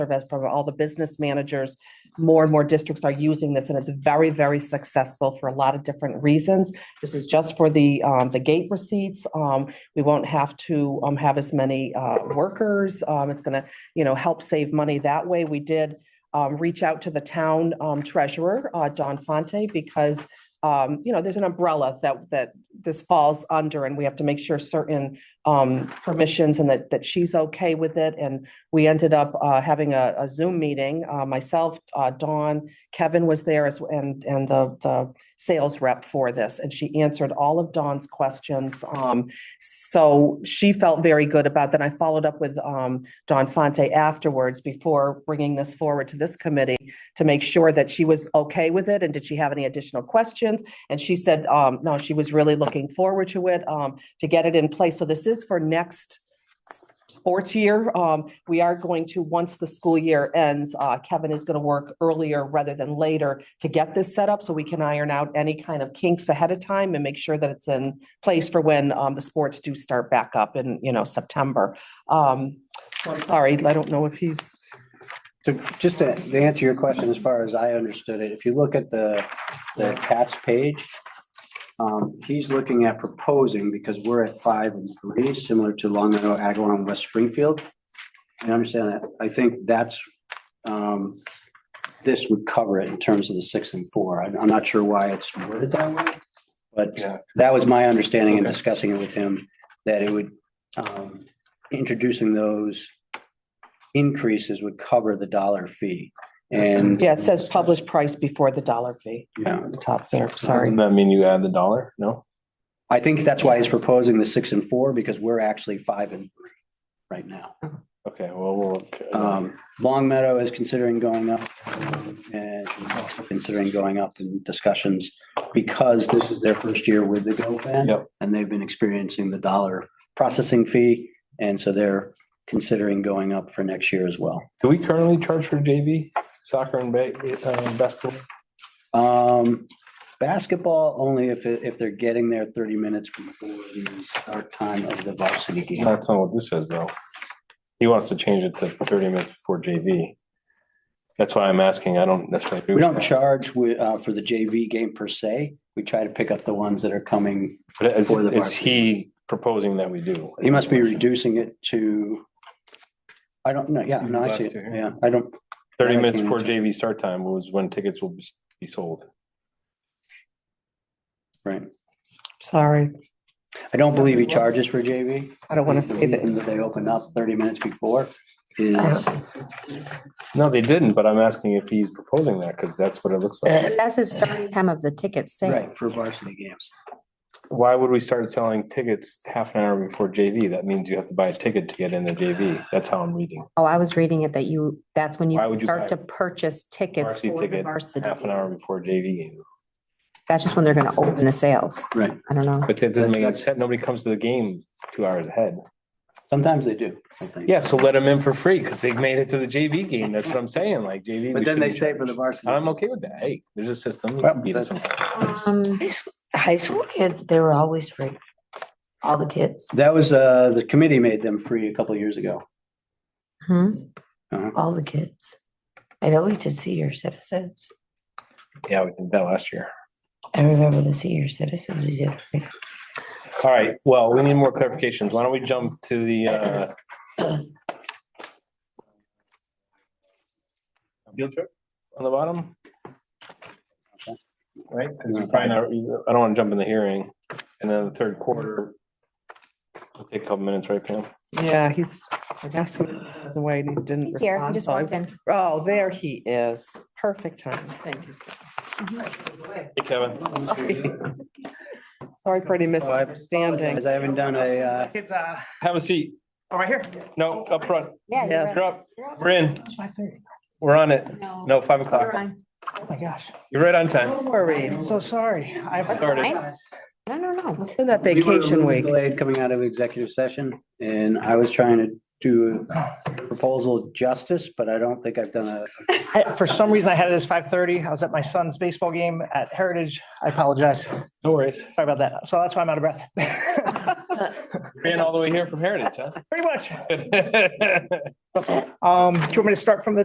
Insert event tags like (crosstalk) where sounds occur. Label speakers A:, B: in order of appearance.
A: serve as for all the business managers. More and more districts are using this and it's very, very successful for a lot of different reasons. This is just for the, um, the gate receipts. Um, we won't have to, um, have as many, uh, workers. Um, it's gonna, you know, help save money that way. We did, um, reach out to the town, um, treasurer, uh, Don Fonte, because, um, you know, there's an umbrella that, that this falls under and we have to make sure certain, um, permissions and that, that she's okay with it. And we ended up uh, having a a Zoom meeting, uh, myself, uh, Dawn, Kevin was there as, and, and the, the sales rep for this, and she answered all of Dawn's questions. Um, So she felt very good about that. I followed up with um, Dawn Fonte afterwards before bringing this forward to this committee to make sure that she was okay with it and did she have any additional questions? And she said, um, no, she was really looking forward to it, um, to get it in place. So this is for next sports year. Um, we are going to, once the school year ends, uh, Kevin is gonna work earlier rather than later to get this set up so we can iron out any kind of kinks ahead of time and make sure that it's in place for when, um, the sports do start back up in, you know, September. Um, so I'm sorry, I don't know if he's,
B: So just to to answer your question, as far as I understood it, if you look at the, the attached page, um, he's looking at proposing, because we're at five and three, similar to Long Meadow, Agawam, and West Springfield. And I understand that. I think that's, um, this would cover it in terms of the six and four. I'm, I'm not sure why it's worded that way. But
C: Yeah.
B: that was my understanding in
C: Okay.
B: discussing it with him, that it would, um, introducing those increases would cover the dollar fee. And.
A: yeah, it says published price before the dollar fee
B: Yeah,
A: at the top there,
C: Doesn't
A: sorry.
C: that mean you add the dollar? No?
B: I think that's why he's proposing the six and four, because we're actually five and three right now.
C: Okay, well, we'll look. uh,
B: Um, Long Meadow is considering going up and also considering going up in discussions because this is their first year with the GoFan.
C: Yep.
B: And they've been experiencing the dollar processing fee. And so they're considering going up for next year as well.
C: Do we currently charge for JV soccer and ba- uh, basketball?
B: Um, basketball only if, it- if they're getting there thirty minutes before the start time of the varsity game.
C: That's not what this says, though. He wants to change it to thirty minutes before JV. That's why I'm asking. I don't necessarily. agree
B: We
C: with
B: don't
C: that.
B: charge wi- uh, for the JV game per se. We try to pick up the ones that are coming.
C: But is,
B: for the
C: is
B: varsity.
C: he proposing that we do?
B: He must be reducing it to, I don't know, yeah, no, I see, it. yeah, I don't,
C: Thirty minutes before JV start time was when tickets will be sold.
B: right.
A: Sorry,
B: I don't believe he charges for JV.
A: I don't wanna say
B: The reason
A: that.
B: that they open up thirty minutes before is,
C: No, they didn't, but I'm asking if he's proposing that, because that's what it looks
B: Uh,
C: like.
D: That's the starting time of the ticket sale.
B: right, for varsity games.
C: Why would we start selling tickets half an hour before JV? That means you have to buy a ticket to get in the JV. That's how I'm reading.
D: Oh, I was reading it that you, that's when
C: Why
D: you
C: would you buy
D: start to purchase tickets
C: Varsity
D: for the
C: ticket,
D: varsity.
C: Half an hour before JV game.
D: That's just when they're gonna open the sales.
B: Right.
D: I don't know.
C: But that doesn't make any sense. Nobody comes to the game two hours ahead.
B: Sometimes they do. I think.
C: Yeah, so let them in for free because they've made it to the JV game. That's what I'm saying, like JV. we
B: But then they
C: shouldn't
B: stay for the
C: charge.
B: varsity.
C: I'm okay with that. Hey, there's a system.
B: Well,
C: Beat us
B: that's-
C: sometime.
D: Um,
E: High sch- High school kids, they were always free. All the kids,
B: That was, uh, the committee made them free a couple of years ago.
D: hmm,
B: Uh-huh.
E: all the kids. I know we did senior citizens.
C: Yeah, we did that last year.
E: I remember the senior citizens we did. free.
C: All right, well, we need more clarifications. Why don't we jump to the uh field trip on the bottom? Right, because we're probably not, I don't want to jump in the hearing. And then the third quarter. It'll Take a couple minutes, right, Pam?
A: Yeah, he's, I asked him, if he was away and he didn't
D: he's here, he
A: respond,
D: just
A: so I
D: walked in.
A: Oh, there he is. Perfect time. Thank you. sir.
C: Hey, Kevin.
A: Sorry for
B: Oh,
A: any misunderstanding.
B: As I haven't done a, uh,
F: It's uh,
C: Have a seat.
F: oh, right here.
C: No, up front.
D: Yeah. you're
A: Yes.
D: right.
C: You're up. We're in. We're on it. No, five
D: You're
C: o'clock.
D: fine.
F: Oh, my gosh.
C: You're right on time.
A: No worries.
F: So sorry. I
C: Started.
D: No, no, no.
A: It's been that
B: We were a
A: vacation
B: little
A: week.
B: Delayed coming out of executive session and I was trying to do proposal justice, but I don't think I've done a.
F: For some reason, I had it as five thirty. I was at my son's baseball game at Heritage. I apologize.
C: No worries.
F: (laughs) Sorry about that. So that's why I'm out of breath.
C: Ran all the way here from Heritage,
F: Pretty much.
C: huh? (laughs)
F: Um, do you want me to start from the